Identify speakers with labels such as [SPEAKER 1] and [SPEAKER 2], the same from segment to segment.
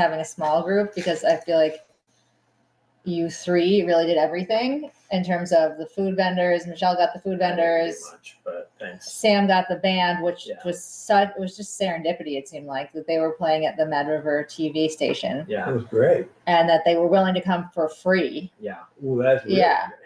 [SPEAKER 1] having a small group because I feel like you three really did everything in terms of the food vendors. Michelle got the food
[SPEAKER 2] I didn't do
[SPEAKER 1] vendors.
[SPEAKER 2] Much, but thanks.
[SPEAKER 1] Sam got the band, which
[SPEAKER 2] Yeah.
[SPEAKER 1] was such it was just serendipity. It seemed like that they were playing at the Med River TV station,
[SPEAKER 2] Yeah,
[SPEAKER 3] was great.
[SPEAKER 1] and that they were willing to come for free.
[SPEAKER 2] yeah.
[SPEAKER 3] Ooh, that's really
[SPEAKER 1] Yeah.
[SPEAKER 3] great.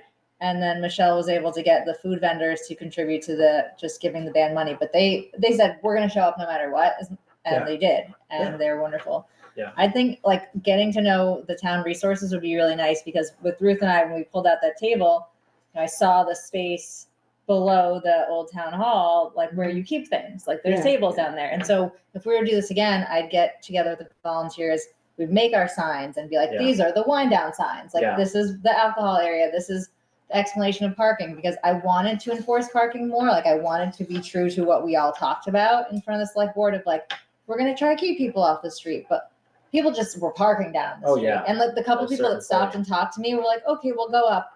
[SPEAKER 1] And then Michelle was able to get the food vendors to contribute to the just giving the band money. But they they said we're going to show up no matter what, and
[SPEAKER 3] Yeah.
[SPEAKER 1] they did, and
[SPEAKER 2] Yeah.
[SPEAKER 1] they're wonderful.
[SPEAKER 2] Yeah.
[SPEAKER 1] I think like getting to know the town resources would be really nice because with Ruth and I, when we pulled out that table, you know, I saw the space below the old town hall, like where you keep things. Like there's
[SPEAKER 4] Yeah.
[SPEAKER 1] tables down there. And so if we were to do this again, I'd get together with the volunteers. We'd make our signs and be like,
[SPEAKER 2] Yeah.
[SPEAKER 1] these are the wind down signs. Like
[SPEAKER 2] Yeah.
[SPEAKER 1] this is the alcohol area. This is the explanation of parking because I wanted to enforce parking more. Like I wanted to be true to what we all talked about in front of the select board of like, we're gonna try to keep people off the street, but people just were parking down the
[SPEAKER 2] Oh,
[SPEAKER 1] street.
[SPEAKER 2] yeah.
[SPEAKER 1] And like the couple
[SPEAKER 2] At a
[SPEAKER 1] people that
[SPEAKER 2] certain
[SPEAKER 1] stopped
[SPEAKER 2] point.
[SPEAKER 1] and talked to me were like, okay, we'll go up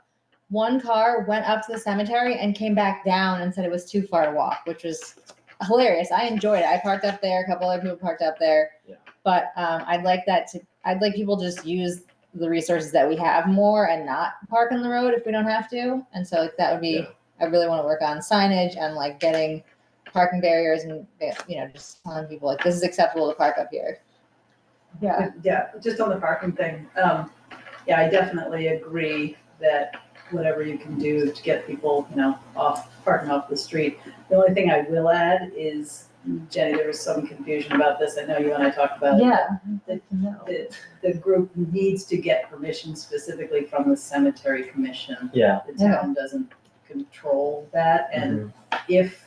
[SPEAKER 1] one car went up to the cemetery and came back down and said it was too far to walk, which was hilarious. I enjoyed it. I parked up there. A couple other people parked up there.
[SPEAKER 2] Yeah.
[SPEAKER 1] But um, I'd like that to. I'd like people to just use the resources that we have more and not park on the road if we don't have to. And so like, that would be.
[SPEAKER 2] Yeah.
[SPEAKER 1] I really want to work on signage and like getting parking barriers and you know just telling people like this is acceptable to park up here.
[SPEAKER 5] Yeah, yeah, just on the parking thing, um, yeah, I definitely agree that whatever you can do to get people, you know, off, parking off the street. The only thing I will add is, Jenny, there was some confusion about this, I know you and I talked about it.
[SPEAKER 1] Yeah.
[SPEAKER 5] The, the group needs to get permission specifically from the cemetery commission.
[SPEAKER 2] Yeah.
[SPEAKER 5] The town doesn't control that, and
[SPEAKER 2] Mm-hmm.
[SPEAKER 5] if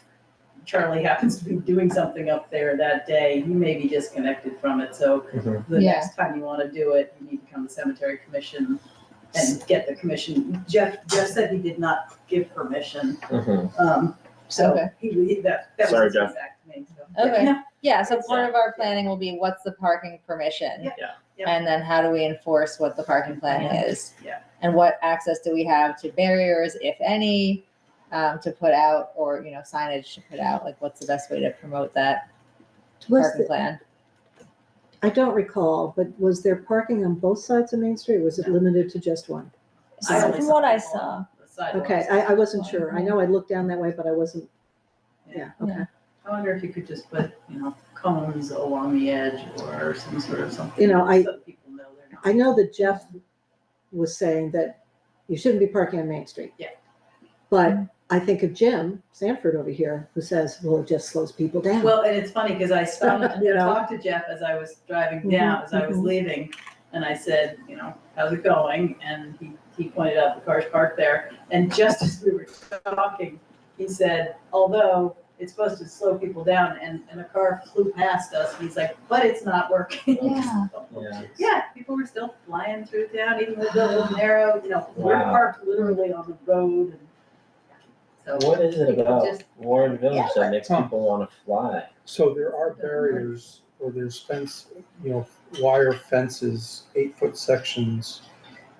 [SPEAKER 5] Charlie happens to be doing something up there that day, he may be disconnected from it, so
[SPEAKER 2] Mhm.
[SPEAKER 5] the
[SPEAKER 1] Yeah.
[SPEAKER 5] next time you want to do it, you need to come to cemetery commission and get the commission. Jeff, Jeff said he did not give permission,
[SPEAKER 2] Mhm.
[SPEAKER 5] um, so
[SPEAKER 1] Okay.
[SPEAKER 5] he, he- that, that
[SPEAKER 2] Sorry,
[SPEAKER 5] was his
[SPEAKER 2] Jeff.
[SPEAKER 5] feedback to me, so.
[SPEAKER 1] Okay.
[SPEAKER 5] Yeah,
[SPEAKER 1] Yeah, so part of our planning will be what's the parking permission?
[SPEAKER 5] Yeah, yeah.
[SPEAKER 1] And then how do we enforce what the parking plan
[SPEAKER 5] Yeah,
[SPEAKER 1] is?
[SPEAKER 5] yeah.
[SPEAKER 1] And what access do we have to barriers, if any, um, to put out or, you know, signage to put out? Like, what's the best way to promote that
[SPEAKER 4] Was
[SPEAKER 1] parking
[SPEAKER 4] the-
[SPEAKER 1] plan?
[SPEAKER 4] I don't recall, but was there parking on both sides of Main Street? or Was it limited to just one?
[SPEAKER 5] I
[SPEAKER 1] So
[SPEAKER 5] only
[SPEAKER 1] From what I
[SPEAKER 5] people
[SPEAKER 1] saw,
[SPEAKER 5] on the sidewalks.
[SPEAKER 4] Okay, I, I wasn't sure. I know I looked down that way, but I wasn't, yeah, okay.
[SPEAKER 5] I wonder if you could just put, you know, cones along the edge or some sort of something.
[SPEAKER 4] You know, I-
[SPEAKER 5] So that people know they're not.
[SPEAKER 4] I know that Jeff was saying that you shouldn't be parking on Main Street.
[SPEAKER 5] Yeah.
[SPEAKER 4] But I think of Jim Sanford over here who says, well, it just slows people down.
[SPEAKER 5] Well, and it's funny because I stopped and
[SPEAKER 4] You know.
[SPEAKER 5] talked to Jeff as I was driving
[SPEAKER 4] Mhm,
[SPEAKER 5] down, as I was
[SPEAKER 4] mhm.
[SPEAKER 5] leaving, and I said, you know, how's it going? And he, he pointed out the cars parked there. And just as we were talking, he said, although it's supposed to slow people down, and, and a car flew past us, and he's like, but it's not working.
[SPEAKER 1] Yeah.
[SPEAKER 2] Yeah.
[SPEAKER 5] Yeah, people were still flying through town, even though it was narrow, you know, we're
[SPEAKER 2] Wow.
[SPEAKER 5] parked literally on the road. and So,
[SPEAKER 2] What is it
[SPEAKER 5] People
[SPEAKER 2] about
[SPEAKER 5] just-
[SPEAKER 2] Warren Village that makes
[SPEAKER 3] Huh.
[SPEAKER 2] people want to fly?
[SPEAKER 3] So there are barriers or there's fence, you know, wire fences, eight foot sections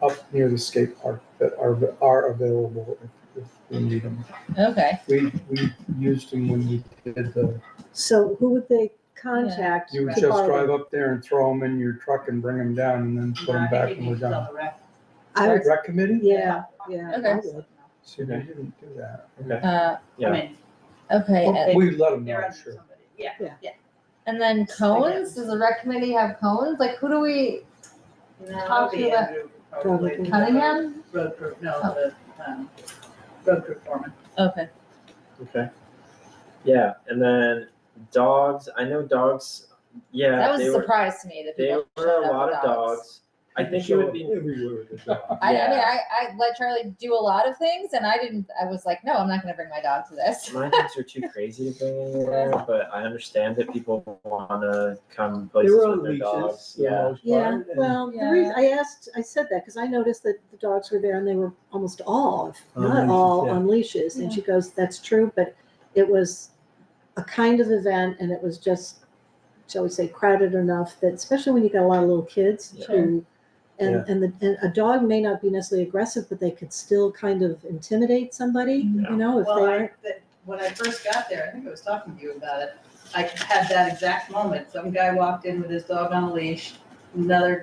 [SPEAKER 3] up near the skate park that are, are available if, if we need them.
[SPEAKER 1] okay.
[SPEAKER 3] We, we used them when we did the,
[SPEAKER 4] So who would they contact?
[SPEAKER 3] you would
[SPEAKER 4] to
[SPEAKER 3] just
[SPEAKER 4] borrow them?
[SPEAKER 3] drive up there and throw them in your truck and bring them down and then put them back and we're done.
[SPEAKER 4] I would,
[SPEAKER 3] Rec committee?
[SPEAKER 4] yeah, yeah. I
[SPEAKER 1] Okay.
[SPEAKER 4] would.
[SPEAKER 3] See, they didn't do that.
[SPEAKER 1] Uh,
[SPEAKER 2] Yeah.
[SPEAKER 5] I mean,
[SPEAKER 1] okay. and-
[SPEAKER 3] Well, We let them
[SPEAKER 5] they're
[SPEAKER 3] know,
[SPEAKER 5] under
[SPEAKER 3] sure.
[SPEAKER 5] somebody, yeah.
[SPEAKER 1] And then cones, does the rec committee have cones? Like, who do we,
[SPEAKER 5] No,
[SPEAKER 1] to
[SPEAKER 5] the
[SPEAKER 1] the-
[SPEAKER 5] Andrew, probably.
[SPEAKER 4] Probably.
[SPEAKER 1] Cunningham?
[SPEAKER 5] Road crew, no, the, um, road crew foreman.
[SPEAKER 1] Okay.
[SPEAKER 2] Okay. Yeah, and then dogs. I know dogs. Yeah,
[SPEAKER 1] That was
[SPEAKER 2] they
[SPEAKER 1] a
[SPEAKER 2] were
[SPEAKER 1] surprise to me that
[SPEAKER 2] they
[SPEAKER 1] people
[SPEAKER 2] were
[SPEAKER 1] showed
[SPEAKER 2] a
[SPEAKER 1] up
[SPEAKER 2] lot
[SPEAKER 1] with
[SPEAKER 2] of
[SPEAKER 1] dogs.
[SPEAKER 2] dogs. I think it would be
[SPEAKER 3] Everywhere with the dog.
[SPEAKER 1] I, I mean,
[SPEAKER 2] Yeah.
[SPEAKER 1] I, I let Charlie do a lot of things, and I didn't. I was like, no, I'm not going to bring my dog to this.
[SPEAKER 2] My dogs are too crazy to bring anywhere, but I understand that people want to come places
[SPEAKER 3] They were on
[SPEAKER 2] with their
[SPEAKER 3] leashes.
[SPEAKER 2] dogs.
[SPEAKER 3] for the
[SPEAKER 2] Yeah.
[SPEAKER 3] most
[SPEAKER 4] Yeah,
[SPEAKER 3] part, and-
[SPEAKER 4] well, the reason, I asked, I said that because I noticed that the dogs were there and they were almost all, if
[SPEAKER 3] On
[SPEAKER 4] not
[SPEAKER 3] leashes,
[SPEAKER 4] all,
[SPEAKER 3] yeah.
[SPEAKER 4] on leashes. And she goes, that's true, but it was a kind of event and it was just, shall we say, crowded enough that, especially when you got a lot of little kids
[SPEAKER 2] Yeah.
[SPEAKER 4] who,
[SPEAKER 3] Yeah.
[SPEAKER 4] and, and the, and a dog may not be necessarily aggressive, but they could still kind of intimidate somebody,
[SPEAKER 2] Yeah.
[SPEAKER 4] you know, if they
[SPEAKER 5] Well, I,
[SPEAKER 4] aren't.
[SPEAKER 5] that, when I first got there, I think I was talking to you about it, I had that exact moment, some guy walked in with his dog on a leash, another